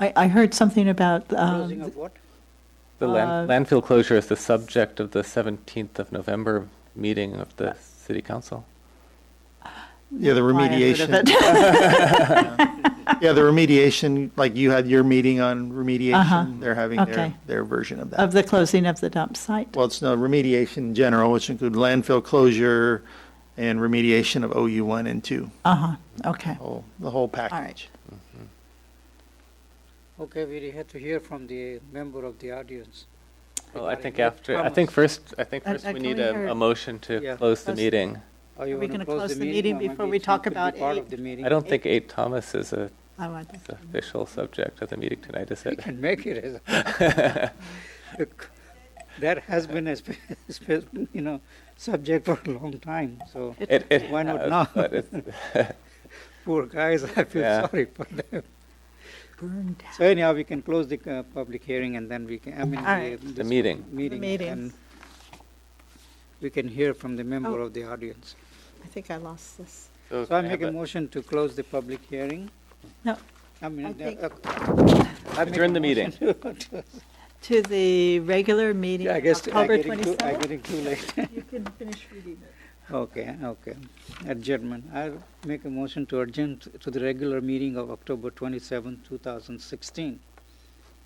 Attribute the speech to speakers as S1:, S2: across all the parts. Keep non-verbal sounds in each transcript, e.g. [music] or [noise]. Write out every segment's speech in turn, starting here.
S1: I, I heard something about,
S2: Closing
S1: um,
S2: of what?
S3: The land- landfill closure is the subject of the 17th of November meeting of the city council.
S4: Yeah, the
S1: why I heard of
S4: remediation.
S1: it.
S4: [laughs] Yeah, the remediation, like you had your meeting on
S1: Uh-huh.
S4: remediation, they're having their,
S1: Okay.
S4: their version of
S1: [laughs]
S4: that.
S1: Of the closing of the dump site.
S4: Well, it's no remediation in general, which include landfill closure and remediation of OU one and two,
S1: Uh-huh, okay, all
S4: whole- the whole
S1: right.
S4: package.
S2: Okay, we have to hear from the member of the audience.
S3: Well, I
S2: regarding
S3: think
S2: what
S3: after, I
S2: comments.
S3: think first, I think
S1: Uh,
S3: first
S1: uh,
S3: we
S1: can
S3: need
S1: we
S3: a,
S1: hear-
S3: a motion
S2: Yeah.
S3: to close the
S1: Close-
S3: meeting.
S2: Are you
S1: Are we
S2: gonna
S1: gonna close the meeting
S2: or
S1: before
S2: maybe
S1: we
S2: it's
S1: talk
S2: not gonna
S1: about
S2: be Part
S1: eight?
S2: of the meeting.
S3: I don't think 8 Thomas is a
S1: Oh, I want that.
S3: the official subject of the meeting tonight, is
S2: We
S3: it?
S2: can make it as.
S3: [laughs]
S2: Look, That has been a, spe- [laughs] spe- you know, subject for a long time, so
S3: It- it
S2: Why not
S3: has,
S2: now?
S3: but
S2: [laughs]
S3: it's-
S2: poor guys, I
S3: Yeah.
S2: feel sorry for them.
S1: Burned down.
S2: So anyhow, we can close the uh, public hearing and then we can, I mean.
S1: All right.
S2: this
S3: The meeting.
S2: Meeting.
S1: meeting.
S2: and We can hear from the member
S1: Oh.
S2: of the audience.
S1: I think I lost this.
S3: So
S2: So I
S3: can I
S2: make
S3: have
S2: a
S3: a-
S2: motion to close the public hearing.
S1: No,
S2: I mean,
S1: I think-
S2: uh, I make
S3: Adjourn
S2: a
S3: the meeting.
S2: motion to-
S1: to the regular meeting,
S2: Yeah, I guess I'm
S1: October
S2: getting too, I'm
S1: 27th.
S2: getting too late.
S1: You can finish reading it.
S2: [laughs] Okay, okay. Adjournment. I'll make a motion to adjourn t- to the regular meeting of October twenty-seventh, two thousand sixteen,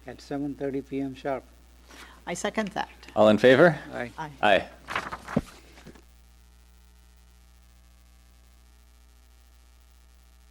S2: at seven thirty PM sharp.
S1: I second that.
S3: All in favor?
S2: Aye.
S1: Aye.
S3: Aye.